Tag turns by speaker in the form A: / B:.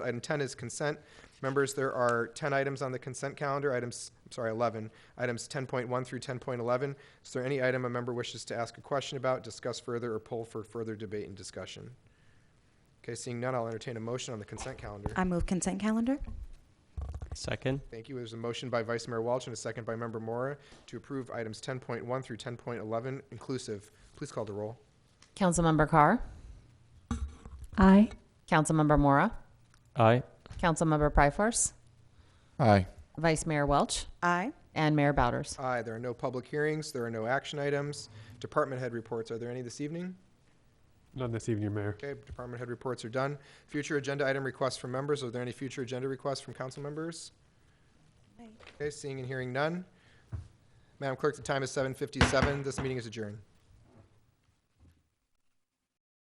A: Item 10 is consent. Members, there are 10 items on the consent calendar, items, I'm sorry, 11, items 10.1 through 10.11. Is there any item a member wishes to ask a question about, discuss further, or pull for further debate and discussion? Okay, seeing none, I'll entertain a motion on the consent calendar.
B: I move consent calendar.
C: Second.
A: Thank you. There's a motion by Vice Mayor Walsh and a second by Member Mora to approve items 10.1 through 10.11 inclusive. Please call the roll.
D: Councilmember Carr.
B: Aye.
D: Councilmember Mora.
C: Aye.
D: Councilmember Pryforce.
E: Aye.
D: Vice Mayor Welch.
B: Aye.
D: And Mayor Bowders.
A: Aye, there are no public hearings, there are no action items. Department head reports, are there any this evening?
F: None this evening, Mayor.
A: Okay, department head reports are done. Future agenda item requests from members, are there any future agenda requests from council members?
B: Aye.
A: Okay, seeing and hearing none. Madam Clerk, the time is 7:57, this meeting is adjourned.